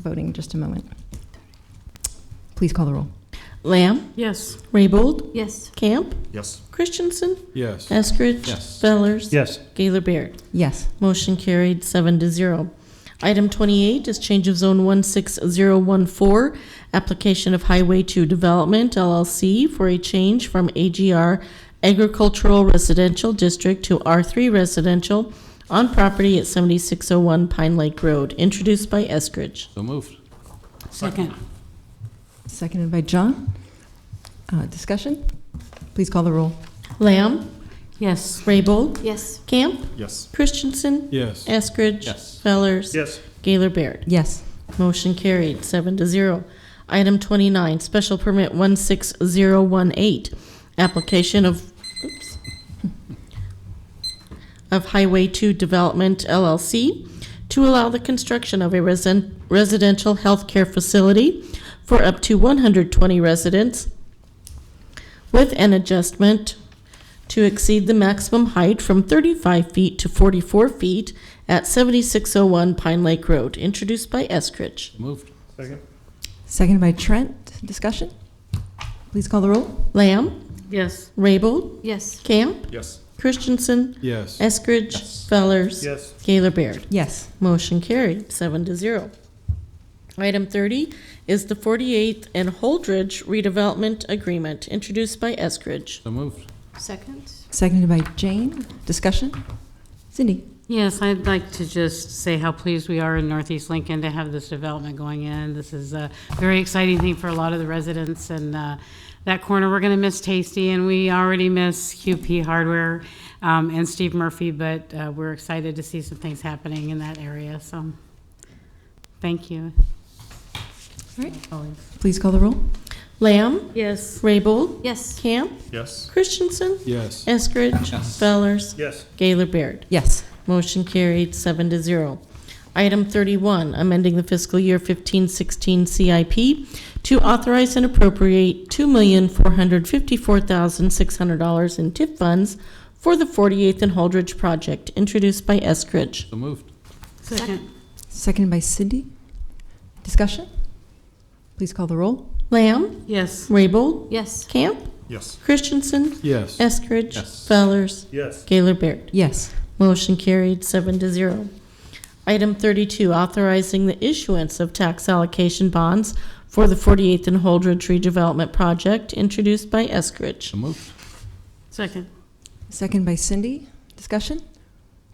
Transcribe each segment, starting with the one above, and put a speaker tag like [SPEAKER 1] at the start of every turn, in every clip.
[SPEAKER 1] voting in just a moment. Please call the roll.
[SPEAKER 2] Lamb,
[SPEAKER 3] Yes.
[SPEAKER 2] Raybold,
[SPEAKER 3] Yes.
[SPEAKER 2] Camp,
[SPEAKER 4] Yes.
[SPEAKER 2] Christensen,
[SPEAKER 4] Yes.
[SPEAKER 2] Eskridge,
[SPEAKER 4] Yes.
[SPEAKER 2] Fellers,
[SPEAKER 5] Yes.
[SPEAKER 2] Gaylor Baird.
[SPEAKER 1] Yes.
[SPEAKER 2] Motion carried seven to zero. Item twenty-eight is change of zone one six zero one four, application of Highway Two Development LLC for a change from AGR Agricultural Residential District to R three Residential on property at seventy-six oh one Pine Lake Road, introduced by Eskridge.
[SPEAKER 4] So moved.
[SPEAKER 3] Second.
[SPEAKER 1] Seconded by John. Uh, Discussion? Please call the roll.
[SPEAKER 2] Lamb,
[SPEAKER 3] Yes.
[SPEAKER 2] Raybold,
[SPEAKER 3] Yes.
[SPEAKER 2] Camp,
[SPEAKER 4] Yes.
[SPEAKER 2] Christensen,
[SPEAKER 4] Yes.
[SPEAKER 2] Eskridge.
[SPEAKER 4] Yes.
[SPEAKER 2] Fellers.
[SPEAKER 5] Yes.
[SPEAKER 2] Gaylor Baird.
[SPEAKER 1] Yes.
[SPEAKER 2] Motion carried, seven to zero. Item twenty-nine, special permit one six zero one eight, application of, oops, of Highway Two Development LLC to allow the construction of a resen- residential healthcare facility for up to one hundred twenty residents with an adjustment to exceed the maximum height from 35 feet to 44 feet at 7601 Pine Lake Road, introduced by Eskridge.
[SPEAKER 4] Moved.
[SPEAKER 5] Second.
[SPEAKER 1] Seconded by Trent. Discussion? Please call the roll.
[SPEAKER 2] Lamb,
[SPEAKER 3] Yes.
[SPEAKER 2] Raybold,
[SPEAKER 3] Yes.
[SPEAKER 2] Camp,
[SPEAKER 4] Yes.
[SPEAKER 2] Christensen,
[SPEAKER 4] Yes.
[SPEAKER 2] Eskridge,
[SPEAKER 4] Yes.
[SPEAKER 2] Fellers,
[SPEAKER 5] Yes.
[SPEAKER 2] Gaylor Baird.
[SPEAKER 1] Yes.
[SPEAKER 2] Motion carried, seven to zero. Item 30 is the 48th and Holdridge redevelopment agreement, introduced by Eskridge.
[SPEAKER 4] So moved.
[SPEAKER 3] Second.
[SPEAKER 1] Seconded by Jane. Discussion? Cindy?
[SPEAKER 3] Yes, I'd like to just say how pleased we are in Northeast Lincoln to have this development going in. This is a very exciting thing for a lot of the residents and uh, that corner, we're going to miss Tasty and we already miss QP Hardware um, and Steve Murphy, but uh, we're excited to see some things happening in that area, so thank you.
[SPEAKER 1] All right.
[SPEAKER 3] always.
[SPEAKER 1] Please call the roll.
[SPEAKER 2] Lamb,
[SPEAKER 3] Yes.
[SPEAKER 2] Raybold,
[SPEAKER 3] Yes.
[SPEAKER 2] Camp,
[SPEAKER 4] Yes.
[SPEAKER 2] Christensen,
[SPEAKER 4] Yes.
[SPEAKER 2] Eskridge,
[SPEAKER 4] Yes.
[SPEAKER 2] Fellers,
[SPEAKER 5] Yes.
[SPEAKER 2] Gaylor Baird.
[SPEAKER 1] Yes.
[SPEAKER 2] Motion carried, seven to zero. Item thirty-one, amending the fiscal year fifteen sixteen CIP to authorize and appropriate two million four hundred fifty-four thousand six hundred dollars in TIP funds for the forty-eighth and Holdridge project, introduced by Eskridge.
[SPEAKER 4] So moved.
[SPEAKER 3] Second.
[SPEAKER 1] Seconded by Cindy. Discussion? Please call the roll.
[SPEAKER 2] Lamb,
[SPEAKER 3] Yes.
[SPEAKER 2] Raybold,
[SPEAKER 3] Yes.
[SPEAKER 2] Camp,
[SPEAKER 4] Yes.
[SPEAKER 2] Christensen,
[SPEAKER 4] Yes.
[SPEAKER 2] Eskridge,
[SPEAKER 4] Yes.
[SPEAKER 2] Fellers,
[SPEAKER 5] Yes.
[SPEAKER 2] Gaylor Baird.
[SPEAKER 1] Yes.
[SPEAKER 2] Motion carried, seven to zero. Item thirty-two, authorizing the issuance of tax allocation bonds for the Forty-Eighth and Holdridge redevelopment project, introduced by Eskridge.
[SPEAKER 4] So moved.
[SPEAKER 3] Second.
[SPEAKER 1] Seconded by Cindy. Discussion?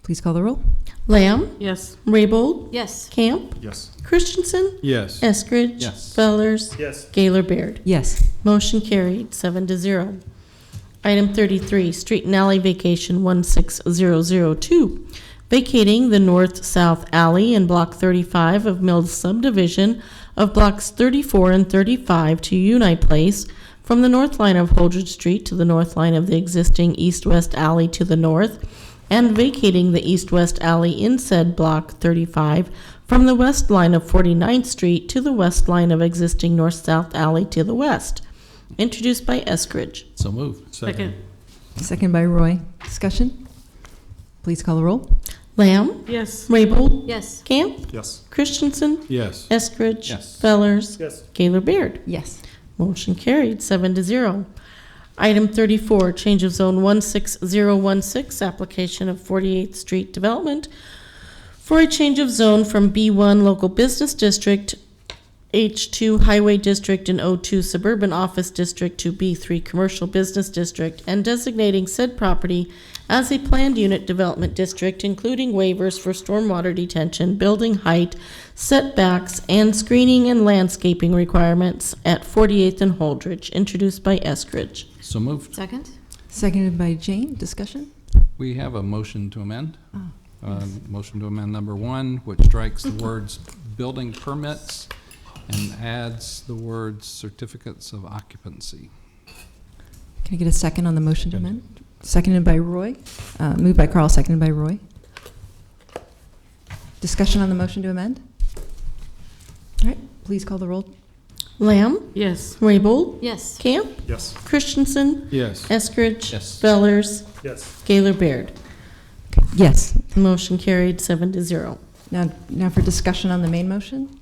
[SPEAKER 1] Please call the roll.
[SPEAKER 2] Lamb,
[SPEAKER 3] Yes.
[SPEAKER 2] Raybold,
[SPEAKER 3] Yes.
[SPEAKER 2] Camp,
[SPEAKER 4] Yes.
[SPEAKER 2] Christensen,
[SPEAKER 4] Yes.
[SPEAKER 2] Eskridge.
[SPEAKER 4] Yes.
[SPEAKER 2] Fellers,
[SPEAKER 5] Yes.
[SPEAKER 2] Gaylor Baird.
[SPEAKER 1] Yes.
[SPEAKER 2] Motion carried, seven to zero. Item thirty-three, Street and Alley Vacation one six zero zero two, vacating the north-south alley in block thirty-five of Mills subdivision of blocks thirty-four and thirty-five to Unite Place from the north line of Holdred Street to the north line of the existing east-west alley to the north, and vacating the east-west alley in said block thirty-five from the west line of 49th Street to the west line of existing north-south alley to the west, introduced by Eskridge.
[SPEAKER 4] So moved.
[SPEAKER 3] Second.
[SPEAKER 1] Second by Roy. Discussion? Please call the roll.
[SPEAKER 2] Lamb,
[SPEAKER 3] Yes.
[SPEAKER 2] Raybold,
[SPEAKER 3] Yes.
[SPEAKER 2] Camp,
[SPEAKER 4] Yes.
[SPEAKER 2] Christensen,
[SPEAKER 4] Yes.
[SPEAKER 2] Eskridge,
[SPEAKER 4] Yes.
[SPEAKER 2] Fellers,
[SPEAKER 5] Yes.
[SPEAKER 2] Gaylor Baird.
[SPEAKER 1] Yes.
[SPEAKER 2] Motion carried, seven to zero. Item thirty-four, change of zone one six zero one six, application of Forty-Eighth Street Development for a change of zone from B one Local Business District, H two Highway District, and O two Suburban Office District to B three Commercial Business District, and designating said property as a planned unit development district, including waivers for stormwater detention, building height, setbacks, and screening and landscaping requirements at 48th and Holdridge, introduced by Eskridge.
[SPEAKER 4] So moved.
[SPEAKER 3] Second.
[SPEAKER 1] Seconded by Jane. Discussion?
[SPEAKER 4] We have a motion to amend.
[SPEAKER 1] Oh,
[SPEAKER 4] Uh, Motion to amend number one, which strikes the words building permits and adds the words certificates of occupancy.
[SPEAKER 1] Can I get a second on the motion to amend? Seconded by Roy. Uh, Moved by Carl, seconded by Roy. Discussion on the motion to amend? All right, please call the roll.
[SPEAKER 2] Lamb,
[SPEAKER 3] Yes.
[SPEAKER 2] Raybold,
[SPEAKER 3] Yes.
[SPEAKER 2] Camp,
[SPEAKER 4] Yes.
[SPEAKER 2] Christensen,
[SPEAKER 5] Yes.
[SPEAKER 2] Eskridge,
[SPEAKER 4] Yes.
[SPEAKER 2] Fellers,
[SPEAKER 5] Yes.
[SPEAKER 2] Gaylor Baird.
[SPEAKER 1] Yes.
[SPEAKER 2] Motion carried, seven to zero.
[SPEAKER 1] Now, now for discussion on the main motion?